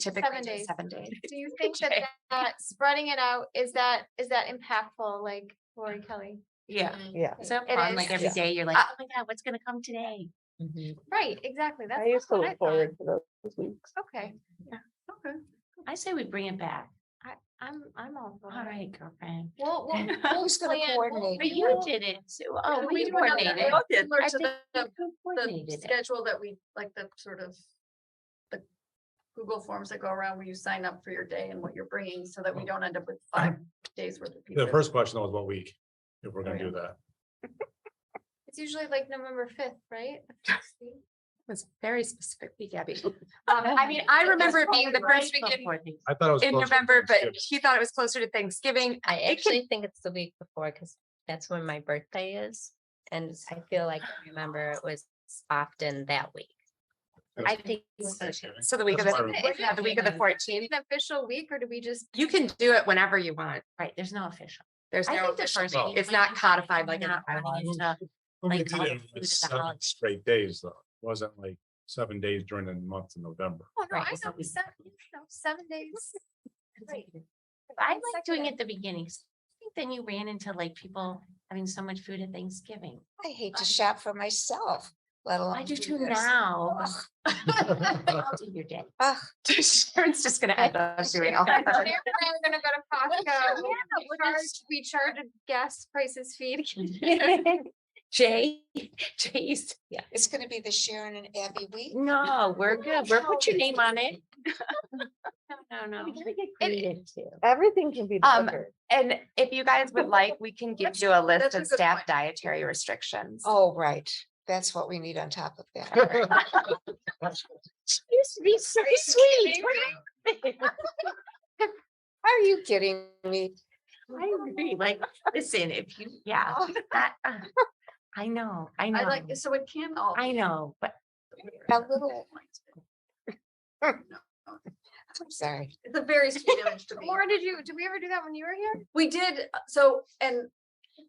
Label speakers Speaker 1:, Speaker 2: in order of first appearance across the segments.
Speaker 1: Typically,
Speaker 2: Seven
Speaker 1: just
Speaker 2: days.
Speaker 1: seven days.
Speaker 2: Do you think that
Speaker 1: Okay.
Speaker 2: that spreading it out, is that, is that impactful, like Lori Kelly?
Speaker 1: Yeah.
Speaker 3: Yeah.
Speaker 1: So
Speaker 2: It
Speaker 1: fun, like
Speaker 2: is.
Speaker 1: every
Speaker 3: Yeah.
Speaker 1: day you're like,
Speaker 2: Uh,
Speaker 1: oh my God, what's gonna come today?
Speaker 2: Right, exactly. That's
Speaker 3: I used to
Speaker 2: what I
Speaker 3: look
Speaker 2: thought.
Speaker 3: forward to those weeks.
Speaker 2: Okay,
Speaker 1: Okay. I say we bring it back.
Speaker 2: I'm, I'm all for
Speaker 1: All
Speaker 2: it.
Speaker 1: right, girlfriend.
Speaker 2: We'll, we'll.
Speaker 1: Who's
Speaker 2: gonna coordinate?
Speaker 1: But you did it too. Oh, we coordinated.
Speaker 4: Similar
Speaker 1: I
Speaker 4: to
Speaker 1: think
Speaker 4: the-
Speaker 1: we
Speaker 4: the
Speaker 1: coordinated it.
Speaker 4: schedule that we, like the sort of the Google forms that go around where you sign up for your day and what you're bringing so that we don't end up with five days worth of
Speaker 5: The
Speaker 4: pizza.
Speaker 5: first question though is what week, if
Speaker 6: Oh,
Speaker 5: we're gonna
Speaker 4: yeah.
Speaker 5: do that.
Speaker 2: It's usually like November fifth, right?
Speaker 6: was very specifically Gabby. Um,
Speaker 1: Oh.
Speaker 6: I mean, I remember it being the
Speaker 1: Right
Speaker 6: first week in-
Speaker 1: before things.
Speaker 5: I thought it was.
Speaker 6: in
Speaker 5: closer to
Speaker 6: November, but
Speaker 5: Thanksgiving.
Speaker 6: she thought it was closer to Thanksgiving.
Speaker 7: I
Speaker 6: It could-
Speaker 7: actually think it's the week before because that's when my birthday is. And it's- I feel like I remember it was often that week.
Speaker 5: Yeah.
Speaker 7: I think
Speaker 5: It's Thanksgiving.
Speaker 6: So the week of
Speaker 5: That's why
Speaker 6: the,
Speaker 5: we-
Speaker 2: Is
Speaker 6: yeah, the week of the
Speaker 2: it
Speaker 6: fourteenth,
Speaker 2: An official week or do we just?
Speaker 6: you can do it whenever you want.
Speaker 1: Right, there's no official.
Speaker 6: There's
Speaker 1: I
Speaker 6: no
Speaker 1: think the
Speaker 6: official,
Speaker 1: first week
Speaker 6: it's
Speaker 1: might
Speaker 6: not
Speaker 1: be
Speaker 6: codified like in the
Speaker 1: not running
Speaker 6: bylaws.
Speaker 1: into-
Speaker 5: But we
Speaker 1: like,
Speaker 5: did
Speaker 1: all
Speaker 5: it
Speaker 1: the
Speaker 5: with
Speaker 1: food at the
Speaker 5: seven
Speaker 1: holiday.
Speaker 5: Straight days though, It wasn't like seven days during the month of November.
Speaker 2: Oh, no,
Speaker 1: Right,
Speaker 2: I
Speaker 1: it's
Speaker 2: know,
Speaker 1: not-
Speaker 2: seven, you know, seven days. Right.
Speaker 1: I like doing
Speaker 2: Consecutive.
Speaker 1: it the beginnings. I think then you ran into like people having so much food at Thanksgiving.
Speaker 8: I hate to shop for myself, let alone.
Speaker 1: I do too
Speaker 8: this.
Speaker 1: now.
Speaker 8: Ugh,
Speaker 1: I'll do your day.
Speaker 8: ugh.
Speaker 6: Sharon's just gonna end up doing all
Speaker 2: Sarah
Speaker 6: that.
Speaker 2: and I are gonna go to Costco. We charge, we charge a gas prices fee to get
Speaker 1: Jay, Jay's, yeah,
Speaker 8: It's gonna be the Sharon and Abby week.
Speaker 1: no, we're good. We're put your name on it.
Speaker 2: No, no,
Speaker 1: We
Speaker 2: no.
Speaker 1: gotta get
Speaker 2: And-
Speaker 1: creative too.
Speaker 3: Everything can be
Speaker 6: Um,
Speaker 3: delivered.
Speaker 6: And if you guys would like, we can give you a list
Speaker 4: that's a
Speaker 6: of
Speaker 4: good
Speaker 6: staff
Speaker 4: point.
Speaker 6: dietary restrictions.
Speaker 8: Oh, right. That's what we need on top of that.
Speaker 1: She used to be so sweet.
Speaker 8: Are you kidding me?
Speaker 1: I agree, like, listen, if you, yeah, that, uh, I know, I
Speaker 4: I
Speaker 1: know,
Speaker 4: like, so it can all.
Speaker 1: I know, but
Speaker 8: A little bit. I'm sorry.
Speaker 4: It's a very sweet image to me.
Speaker 2: Laura, did you, did we ever do that when you were here?
Speaker 4: We did, uh, so, and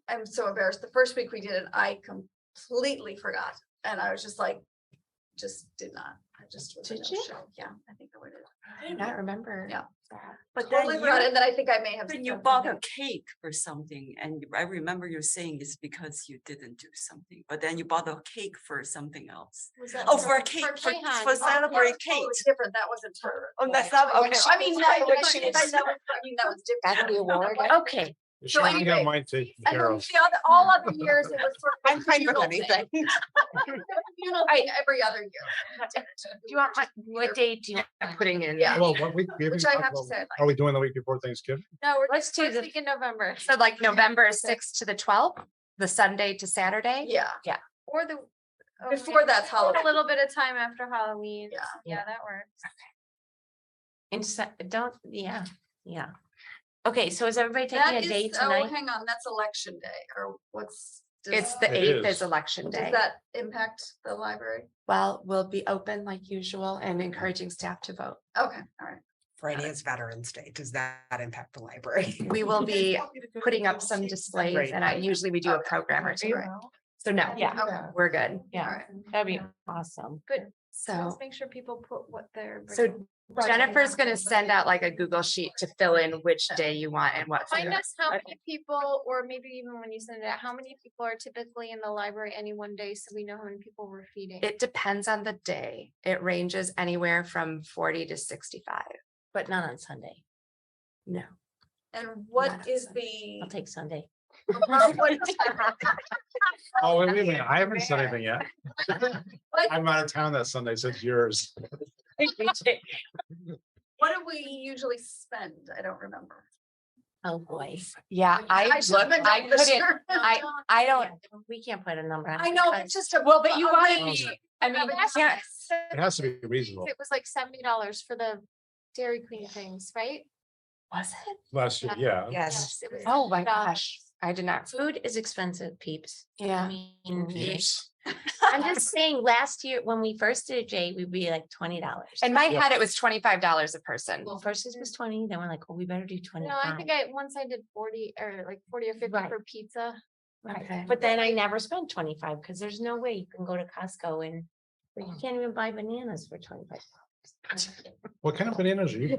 Speaker 4: I'm so embarrassed. The first week we did it, I completely forgot. And I was just like, just did not. I just was in
Speaker 1: Did
Speaker 4: no
Speaker 1: you?
Speaker 4: show. Yeah, I think I would have.
Speaker 6: I do not remember.
Speaker 4: Yeah.
Speaker 6: that.
Speaker 9: But then
Speaker 4: Totally forgot.
Speaker 9: you,
Speaker 4: And then I think I may have.
Speaker 9: then you
Speaker 4: said
Speaker 9: bought a
Speaker 4: something.
Speaker 9: cake or something, and you- I remember you saying it's because you didn't do something, but then you bought a cake for something else.
Speaker 4: Was that
Speaker 9: Oh,
Speaker 4: for-
Speaker 9: for a cake, for,
Speaker 2: Kehan. Oh,
Speaker 9: for
Speaker 2: yeah,
Speaker 9: celebrate
Speaker 4: That was
Speaker 9: cake.
Speaker 4: totally Different, that wasn't her.
Speaker 9: Oh, that's
Speaker 4: Right.
Speaker 9: not,
Speaker 8: Like
Speaker 9: okay,
Speaker 8: she
Speaker 9: I mean,
Speaker 8: was-
Speaker 9: no,
Speaker 8: like
Speaker 9: but-
Speaker 8: she
Speaker 9: but
Speaker 8: was-
Speaker 9: that was- I mean, that was
Speaker 8: Got the
Speaker 9: different.
Speaker 8: award.
Speaker 1: okay.
Speaker 4: So
Speaker 5: Sharon, you got
Speaker 4: anyway,
Speaker 5: mine taken
Speaker 4: And
Speaker 5: care
Speaker 4: then
Speaker 5: of.
Speaker 4: the other, all other years, it was sort of.
Speaker 6: I'm fine with
Speaker 4: communal thing.
Speaker 6: anything.
Speaker 4: It was a communal thing Every other year.
Speaker 6: Do you want my, what date do you want putting in?
Speaker 4: Yeah.
Speaker 5: Well, what week? we haven't
Speaker 4: Which I
Speaker 5: talked
Speaker 4: have to
Speaker 5: about-
Speaker 4: say, I
Speaker 5: Are we doing the week before Thanksgiving?
Speaker 2: No, we're
Speaker 6: Let's
Speaker 2: just,
Speaker 6: do
Speaker 2: first
Speaker 6: the-
Speaker 2: week in November,
Speaker 6: So like November sixth to the twelfth, the Sunday to Saturday?
Speaker 4: like- yeah.
Speaker 2: or the. oh, we
Speaker 4: Before
Speaker 2: have-
Speaker 4: that's
Speaker 2: we have
Speaker 4: Halloween.
Speaker 2: A little bit of time after Halloween.
Speaker 4: Yeah.
Speaker 2: Yeah, that works.
Speaker 1: And so, don't, yeah, yeah. Okay, so is everybody taking
Speaker 4: That
Speaker 1: a day
Speaker 4: is, oh,
Speaker 1: tonight?
Speaker 4: hang on, that's election day or what's? does-
Speaker 6: It's the
Speaker 5: It
Speaker 6: eighth
Speaker 5: is.
Speaker 6: is election
Speaker 4: Does
Speaker 6: day.
Speaker 4: that impact the library?
Speaker 6: Well, we'll be open like usual and encouraging staff to vote.
Speaker 4: Okay, all right.
Speaker 10: Friday is Veterans Day. Does that impact the library?
Speaker 6: We will be putting up some displays
Speaker 10: Right.
Speaker 6: and I usually we do a
Speaker 4: Okay.
Speaker 6: program or two. So no,
Speaker 1: Yeah.
Speaker 4: Okay.
Speaker 6: we're good.
Speaker 1: Yeah,
Speaker 4: Alright.
Speaker 1: that'd be awesome.
Speaker 2: Good. Let's
Speaker 6: So
Speaker 2: make sure people put what they're.
Speaker 6: So
Speaker 2: bringing.
Speaker 6: Jennifer's gonna send out like a Google sheet to fill in which day you want and what.
Speaker 2: Find
Speaker 6: flavor.
Speaker 2: us how
Speaker 6: Okay.
Speaker 2: many people, or maybe even when you send it out, how many people are typically in the library any one day, so we know how many people we're feeding.
Speaker 6: It depends on the day. It ranges anywhere from forty to sixty-five.
Speaker 1: But not on Sunday.
Speaker 6: No.
Speaker 4: And what
Speaker 6: Not
Speaker 4: is
Speaker 6: Sunday.
Speaker 4: the?
Speaker 1: I'll take Sunday.
Speaker 5: Oh, wait, wait a minute. I haven't said anything yet. I'm out of town that Sunday, so it's yours.
Speaker 4: What do we usually spend? I don't remember.
Speaker 1: Oh, boy.
Speaker 6: Yeah, I
Speaker 4: should have
Speaker 6: look,
Speaker 4: been
Speaker 6: I
Speaker 4: doing this
Speaker 6: couldn't,
Speaker 4: year.
Speaker 6: I, I don't,
Speaker 1: Yeah, We can't put a number on.
Speaker 4: I
Speaker 1: it,
Speaker 4: know,
Speaker 1: but
Speaker 4: it's just a.
Speaker 6: well, but
Speaker 4: a-
Speaker 6: you
Speaker 4: a
Speaker 6: wanna
Speaker 4: range
Speaker 6: be,
Speaker 4: of-
Speaker 6: I mean,
Speaker 2: but
Speaker 6: you
Speaker 2: that's
Speaker 6: can't,
Speaker 5: It has to be reasonable.
Speaker 2: It was like seventy dollars for the Dairy Queen things, right?
Speaker 1: Was it?
Speaker 5: Last year, yeah.
Speaker 3: Yes.
Speaker 2: It was Um,
Speaker 6: oh my
Speaker 2: $70.
Speaker 6: gosh, I did not,
Speaker 1: Food is expensive, peeps. I
Speaker 6: yeah.
Speaker 1: mean,
Speaker 5: Mm-hmm. Yes.
Speaker 1: I'm just saying, last year, when we first did it, Jay, we'd be like twenty dollars.
Speaker 6: In my
Speaker 5: Yeah.
Speaker 6: head, it was twenty-five dollars a person.
Speaker 1: Well, first it was twenty, then we're like, oh, we better do twenty.
Speaker 2: No, I think I, once I did forty or like forty or fifty
Speaker 1: Right.
Speaker 2: for pizza.
Speaker 6: Okay.
Speaker 1: Right, but then I never spent twenty-five, because there's no way you can go to Costco and, or you can't even buy bananas for twenty-five.
Speaker 5: What kind of bananas are you